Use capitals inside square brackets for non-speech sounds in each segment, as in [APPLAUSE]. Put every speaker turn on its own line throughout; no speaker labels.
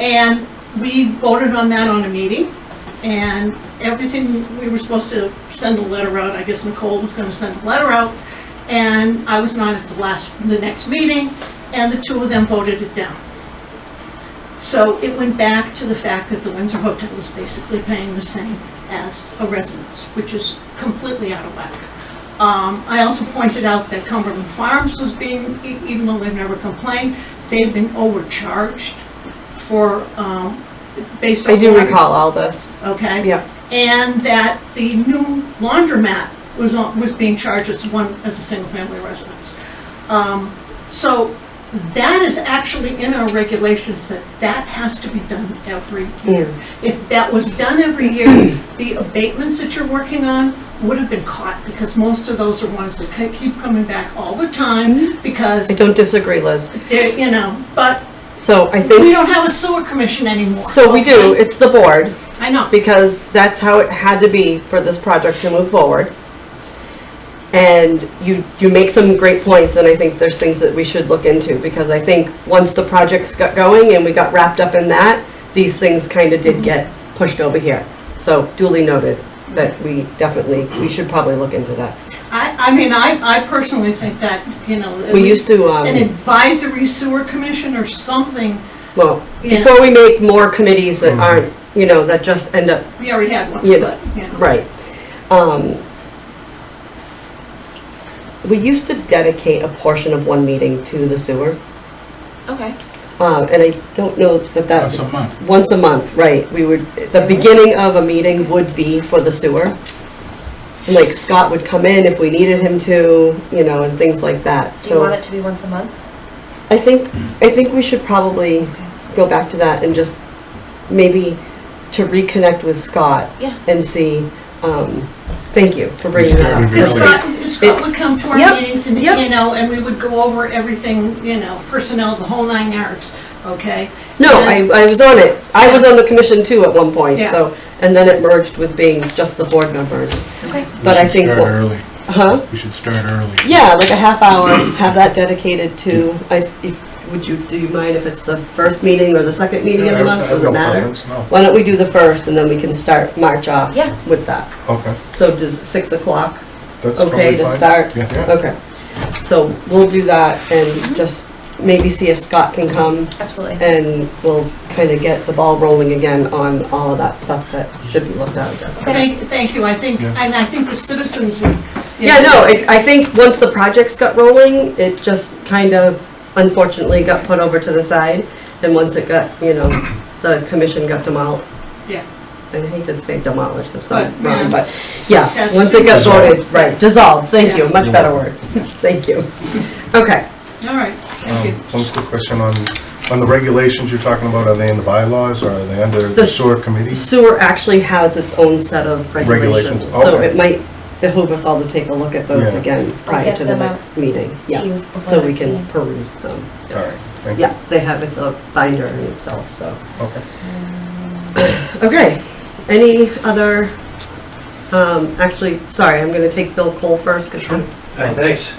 And we voted on that on a meeting, and everything, we were supposed to send a letter out, I guess Nicole was gonna send a letter out, and I was not at the last, the next meeting, and the two of them voted it down. So it went back to the fact that the Windsor Hotel is basically paying the same as a residence, which is completely out of whack. Um, I also pointed out that Cumberland Farms was being, e- even though they've never complained, they've been overcharged for, um, based on.
I do
water-
recall all this.
Okay.
Yeah.
And that the new laundromat was on, was being charged as one, as a single-family residence. Um, so that is actually in our regulations that that has to be done every year.
Mm.
If that was done every
[CLEARS THROAT]
year, the abatements that you're working on would have been caught because most of those are ones that ke- keep coming back all the
Mm.
time because
I don't disagree, Liz.
they're, you know, but
So I
we
think,
don't have a sewer commission anymore.
so we do, it's the board,
I know.
because that's how it had to be for this project to move forward. And you, you make some great points, and I think there's things that we should look into, because I think once the projects got going and we got wrapped up in that, these things kind of did get pushed over here. So duly noted that we definitely, we should probably look into that.
I, I mean, I, I personally think that, you know. at
We
least
used to,
An
um,
advisory sewer commission or something,
well,
Yeah.
before we make more committees
Mm-hmm.
that aren't, you know, that just end up
we already had one,
Yeah.
but, you know.
Right. Um, we used to dedicate a portion of one meeting to the sewer,
Okay.
uh, and I don't know that that.
Once a month.
Once a month, right. We would,
Mm-hmm.
the beginning of a meeting would be for the sewer. And, Like Scott would come in if we needed him to, you know, and things like that,
Do you want
so.
it to be once a month?
I think, I think we should probably go back to that and just maybe to reconnect with Scott
Yeah.
and see, um, thank you for bringing
Just
that up.
gotta
Because
Really?
Scott, Scott would come to our
Yep,
meetings and,
yep.
you know, and we would go over everything, you know, personnel, the whole nine yards, okay?
No, I, I was on it. I was on the commission too at one point,
Yeah.
so, and then it merged with being just the board members.
Okay.
We
But I
should
think
Start
what-
early.
Huh?
We should start early.
Yeah, like a half hour, have that dedicated to, I, if, would you, do you mind if it's the first meeting or the second meeting
Uh,
of the month? Does it matter? Why don't we do the first and then we can start, march off
Yeah.
with that?
Okay,
So does six o'clock,
that's
okay to start?
Um,
Yeah.
Okay. So we'll do that and just maybe see if Scott can come
Absolutely.
and we'll kind of get the ball rolling again on all of that stuff that should be looked at again.
Thank, thank you, I think,
Yeah.
and I think the citizens would. you
Yeah,
know,
no, I, I think once the projects got rolling, it just kind of unfortunately got put over to the side. And once it got, you know, the commission got demolished.
Yeah.
I hate to say demolished, that sounds
But, yeah.
wrong, but, yeah,
That's-
once it got
Dissolved.
voted, right, dissolved, thank you,
Yeah.
much better word, [LAUGHS] thank you. Okay,
All right, thank you.
Um, One quick question on, on the regulations you're talking about, are they in the bylaws or are they under the
The
sewer committee?
sewer actually has its own set of regulations,
Regulations,
so
okay.
it might behoove us all to take a look at those
Yeah.
again prior
get
to the
them out
next meeting,
To you
yeah,
before
so we
next
can
meeting.
peruse them,
All right,
yes.
thank you.
Yeah, they have its own binder in itself, so.
Okay.
Okay, any other, um, actually, sorry, I'm gonna take Bill Cole first, because
Hi, thanks.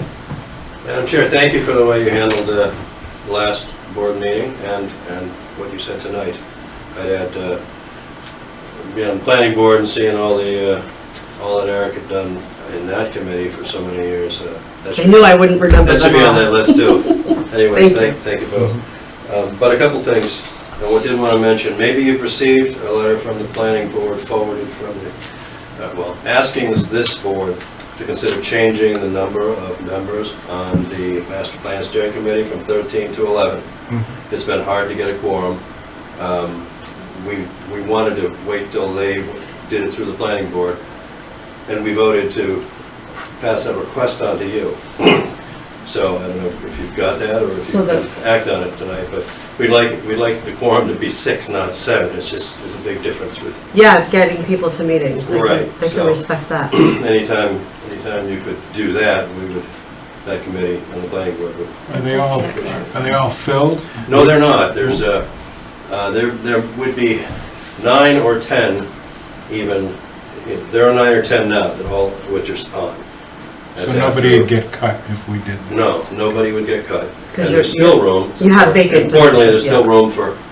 Madam Chair, thank you for the way you handled the last board meeting and, and what you said tonight. I'd add, uh, being on the planning board and seeing all the, uh, all that Eric had done in that committee for so many years, uh, that
I
should,
knew I wouldn't remember
that should be on
them all.
that list too. [LAUGHS] Anyways,
Thank
thank, thank you both. Um, But a couple things, and what I did want to mention, maybe you've received a letter from the planning board forwarded from the, uh, well, asking this- this board to consider changing the number of members on the master plan steering committee from 13 to 11.
Mhm.
It's been hard to get a quorum. Um, We, we wanted to wait till they did it through the planning board, and we voted to pass that request on to you. [CLEARS THROAT] So I don't know if you've got that or if
So
you
the-
can act on it tonight, but we'd like, we'd like the quorum to be six, not seven. It's just, there's a big difference with [CLEARS THROAT]
Yeah, getting people to meetings, I
Right,
can, I can
so-
respect that.
anytime, anytime you could do that, we would, that committee and the planning board would.
Are they all, are they all filled?
No, they're not. There's a, uh, there, there would be nine or 10 even, there are nine or 10 now that all, which are on. That's
So nobody would
after-
get cut if we did that?
No, nobody would get cut.
'Cause
And
you're-
there's still room.
You have vacant
Importantly,
positions,
there's still
yeah.
room for